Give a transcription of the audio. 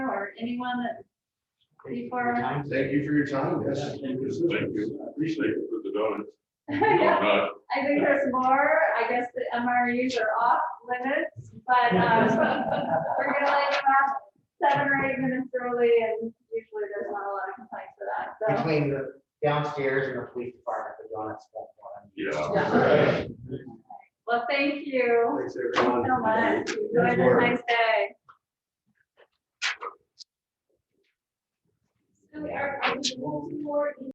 or anyone that, before? Thank you for your time. Yes. Thank you. Appreciate it for the donuts. Yeah, Donut. I think there's more, I guess the MRUs are off limits, but, um, we're gonna let them last seven or eight minutes early, and usually there's not a lot of complaints for that, so. Between the downstairs and the police department, the donuts. won't want them. Yeah. Yeah. Well, thank you Thanks, so everyone. much, enjoy this nice day. So Eric, are you moving forward